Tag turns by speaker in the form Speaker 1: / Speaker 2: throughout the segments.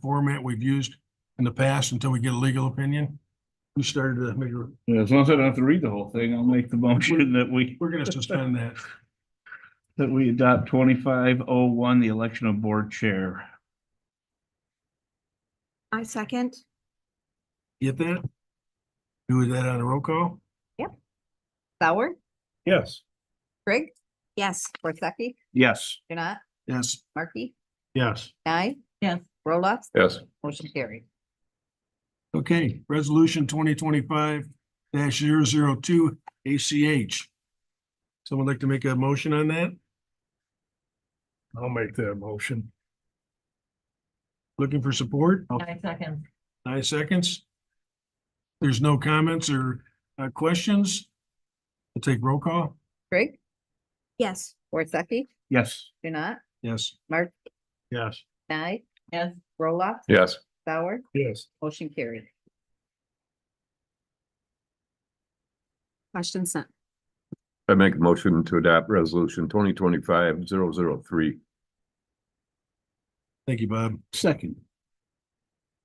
Speaker 1: format we've used in the past until we get a legal opinion? Who started to make, a-
Speaker 2: Yeah, As long as I don't have to read the whole thing, I'll make the motion that we,
Speaker 1: we're gonna suspend that.
Speaker 2: that we adopt twenty-five oh one, the election of board chair.
Speaker 3: I second.
Speaker 1: Get that? Do that on a roll call?
Speaker 4: Sauer,
Speaker 1: Yes.
Speaker 4: Greg,
Speaker 3: Yes,
Speaker 4: Worsakki,
Speaker 2: Yes.
Speaker 4: Janat,
Speaker 1: Yes.
Speaker 4: Markey,
Speaker 1: Yes.
Speaker 4: Nye.
Speaker 3: Yes.
Speaker 4: Roloff,
Speaker 5: Yes.
Speaker 4: motion carried.
Speaker 1: Okay, resolution twenty twenty-five 2 ACH. Someone like to make a motion on that?
Speaker 6: I'll make that motion.
Speaker 1: Looking for support?
Speaker 3: I second.
Speaker 1: Nine seconds. There's no comments or uh, questions? We'll take roll call.
Speaker 4: Greg,
Speaker 3: Yes.
Speaker 4: Worsakki,
Speaker 2: Yes.
Speaker 4: Janat,
Speaker 1: Yes.
Speaker 4: Mark,
Speaker 6: Yes.
Speaker 4: Nye,
Speaker 3: Yes.
Speaker 4: Roloff,
Speaker 5: Yes.
Speaker 4: Sauer,
Speaker 6: Yes.
Speaker 4: motion carried.
Speaker 3: Question sent.
Speaker 5: I make a motion to adopt resolution twenty twenty-five zero zero three.
Speaker 1: Thank you, Bob.
Speaker 2: Second.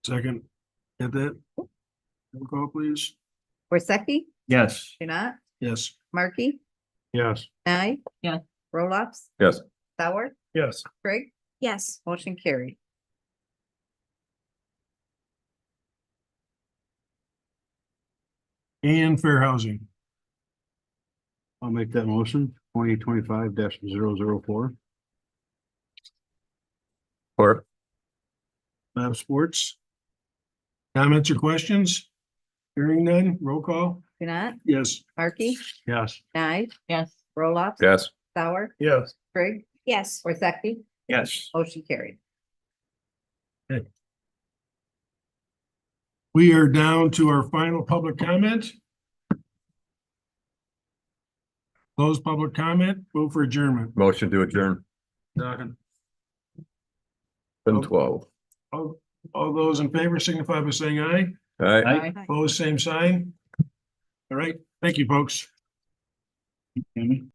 Speaker 1: Second. Get that? Roll call, please.
Speaker 4: Worsakki,
Speaker 2: Yes.
Speaker 4: Janat,
Speaker 1: Yes.
Speaker 4: Markey,
Speaker 6: Yes.
Speaker 4: Nye.
Speaker 3: Yes.
Speaker 4: Roloff.
Speaker 5: Yes.
Speaker 4: Sauer,
Speaker 6: Yes.
Speaker 4: Greg,
Speaker 3: Yes,
Speaker 4: motion carried.
Speaker 1: And fair housing.
Speaker 6: I'll make that motion, twenty twenty-five dash zero zero four.
Speaker 5: Or,
Speaker 1: Bob Sports. Comments or questions? Hearing none, roll call.
Speaker 4: Janat,
Speaker 1: Yes.
Speaker 4: Markey,
Speaker 6: Yes.
Speaker 4: Nye,
Speaker 3: yes.
Speaker 4: Roloff,
Speaker 5: yes,
Speaker 4: Sauer,
Speaker 6: Yes.
Speaker 4: Greg,
Speaker 3: Yes,
Speaker 4: Worsakki,
Speaker 2: Yes.
Speaker 4: motion carried.
Speaker 1: We are down to our final public comment. Close public comment, vote for adjournment.
Speaker 5: motion to adjourn, ten twelve.
Speaker 1: All, all those in favor signify by saying aye.
Speaker 5: All right.
Speaker 2: Aye.
Speaker 1: Opposed, same sign. All right, thank you, folks.
Speaker 2: Amy?